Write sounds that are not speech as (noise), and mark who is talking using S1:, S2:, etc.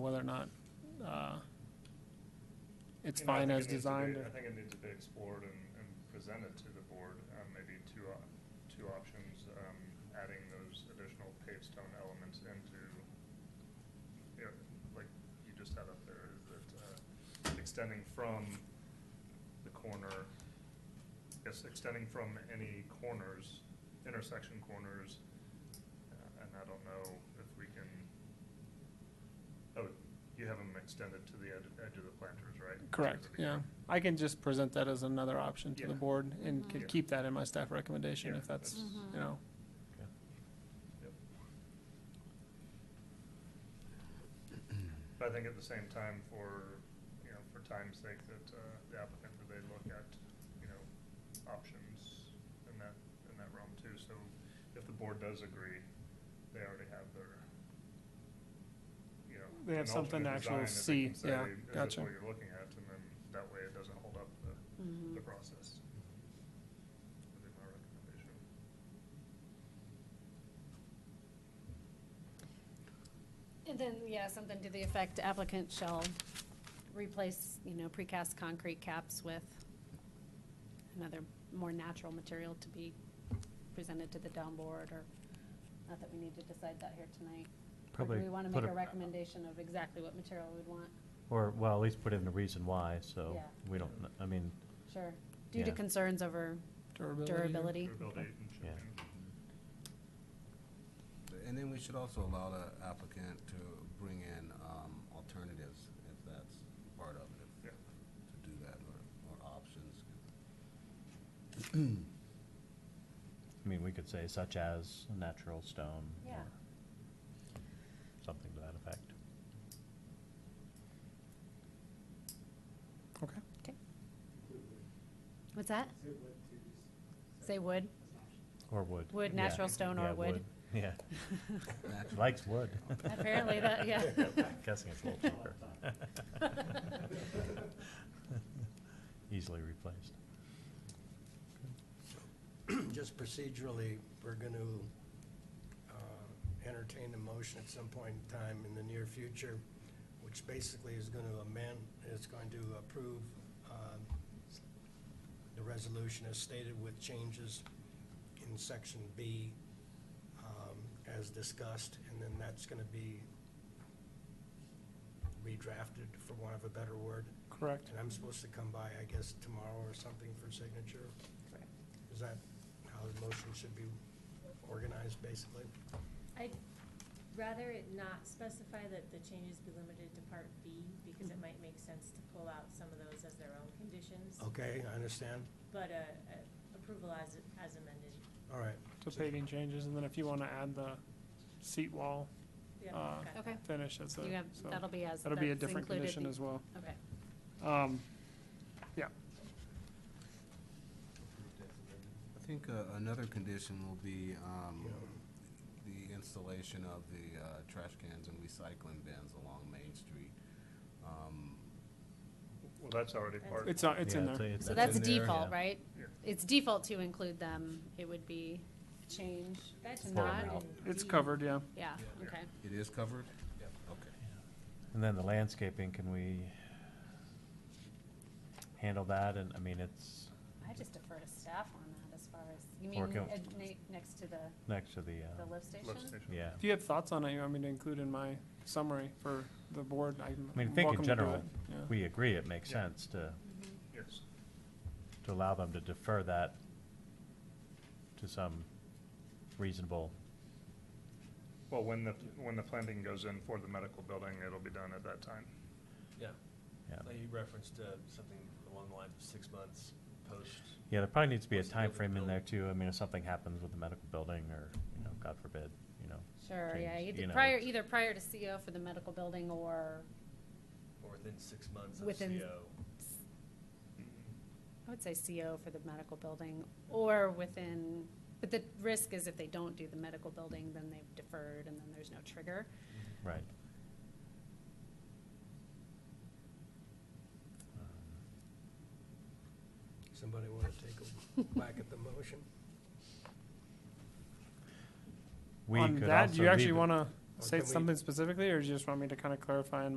S1: whether or not, uh, it's fine as designed.
S2: I
S1: or-
S2: think it needs to be explored and, and presented to the board, um, maybe two, op- two options, um, adding those additional paved stone elements into, you know, like you just had up there, is that, uh, extending from the corner, yes, extending from any corners, intersection corners, uh, and I don't know if we can, oh, you have them extended to the edge, edge of the planters, right?
S1: Correct, yeah. I can just present that as another option to the
S2: Yeah.
S1: board
S3: Mm-hmm.
S1: and
S2: Mhm.
S1: could keep that in my staff recommendation
S2: Yeah,
S1: if that's,
S2: that's- Mhm.
S1: you know.
S2: But I think at the same time, for, you know, for time's sake, that uh, the applicant, that they look at, you know, options in that, in that realm too. So if the board does agree, they already have their, you know.
S1: They have
S2: an
S1: something to
S2: alternate
S1: actually
S2: design that they can
S1: see, yeah,
S2: say, Is
S1: gotcha.
S2: this what you're looking at? And then that way it doesn't hold up the, the process. Would be my recommendation.
S3: And then, yeah, something to the effect applicant shall replace, you know, precast concrete caps with another more natural material to be presented to the down board, or, not that we need to decide that here tonight. Or
S4: Probably
S3: Do we want to
S4: put
S3: make
S4: a-
S3: a recommendation of exactly what material we'd want?
S4: Or, well, at least put in the reason why, so
S3: Yeah.
S4: we don't, kn- I mean,
S3: Sure. Due to
S4: Yeah.
S3: concerns over
S1: Durability. or-
S3: durability.
S2: Durability and
S4: Yeah.
S2: shipping.
S5: And then we should also allow the applicant to bring in um, alternatives, if that's part of it.
S2: Yeah.
S5: To do that, or, or options.
S4: I mean, we could say such as natural stone.
S3: Yeah.
S4: or Something to that effect.
S1: Okay,
S3: What's that? Say wood?
S4: Or wood.
S3: Wood,
S4: Yeah.
S3: natural stone, or
S4: Yeah,
S3: wood.
S4: Yeah,
S5: Natural.
S4: (laughs) likes wood.
S3: Apparently that- yeah.
S4: (laughs) Guessing it's a little cheaper. (laughs) Easily replaced.
S6: Just procedurally, we're going to entertain a motion at some point in time in the near future, which basically is going to amend, is going to approve um, the resolution as stated with changes in section B um, as discussed, and then that's going to be redrafted, for want of a better word.
S1: correct.
S6: And I'm supposed to come by, I guess, tomorrow or something for signature. Is that how the motion should be organized, basically?
S7: I'd rather it not specify that the changes be limited to part B, because it might make sense to pull out some of those as their own conditions.
S6: Okay, I understand.
S7: But, uh, uh, approval as, as amended,
S6: All right.
S1: So paving changes, and then if you want to add the seat wall Uh,
S7: yeah. got
S3: Okay.
S7: that.
S1: finish as a,
S3: You have,
S1: so
S3: that'll be as, that's
S1: that'll be a
S3: included.
S1: different condition as well.
S3: Okay.
S1: Um, yeah,
S5: I think uh, another condition will be um, the installation of the uh, trash cans and recycling bins along Main Street. Um,
S2: Well, that's already part.
S1: it's, not- it's in
S4: Yeah,
S1: there.
S4: it's-
S3: So
S5: That's
S3: that's
S5: in there.
S3: default,
S4: Yeah.
S3: right?
S2: Yeah.
S3: It's default to include them, it would be a change
S7: That's
S3: to
S4: Pull them
S3: not,
S4: out.
S1: It's
S7: B.
S1: covered, yeah.
S3: yeah,
S2: Yeah.
S3: okay.
S5: It is covered? Yep. Okay.
S4: And then the landscaping, can we handle that? And, I mean, it's
S3: I just defer to staff on that as far as, you mean,
S4: Or can-
S3: uh, na- next to the,
S4: next to the,
S3: the
S4: uh,
S3: lift
S2: Lift
S3: station?
S2: station.
S4: yeah.
S1: If you have thoughts on it, you want me to include in my summary for the board, I'm
S4: I mean, I think
S1: welcome
S4: in
S1: to do
S4: general,
S1: it. Yeah.
S4: we agree it makes
S2: Yeah.
S4: sense to
S2: Yes.
S4: to allow them to defer that to some reasonable,
S2: Well, when the, when the planting goes in for the medical building, it'll be done at that time.
S8: Yeah,
S4: yeah.
S8: like you referenced uh, something along the lines of six months post.
S4: Yeah, there probably needs to be a
S8: Once the building
S4: timeframe in there
S8: built.
S4: too. I mean, if something happens with the medical building or, you know, God forbid, you know.
S3: Sure,
S4: change,
S3: yeah,
S4: you
S3: either
S4: know,
S3: prior,
S4: it's-
S3: either prior to CO for the medical building or,
S8: Or within six months of
S3: Within-
S8: CO.
S3: I would say CO for the medical building, or within, but the risk is if they don't do the medical building, then they've deferred and then there's no trigger.
S4: Right.
S6: Somebody want to take a whack at the motion?
S4: We
S1: On
S4: could
S1: that,
S4: also
S1: do you actually
S4: leave it-
S1: want to
S6: Or
S1: say
S6: can we-
S1: something specifically, or do you just want me to kind of clarify in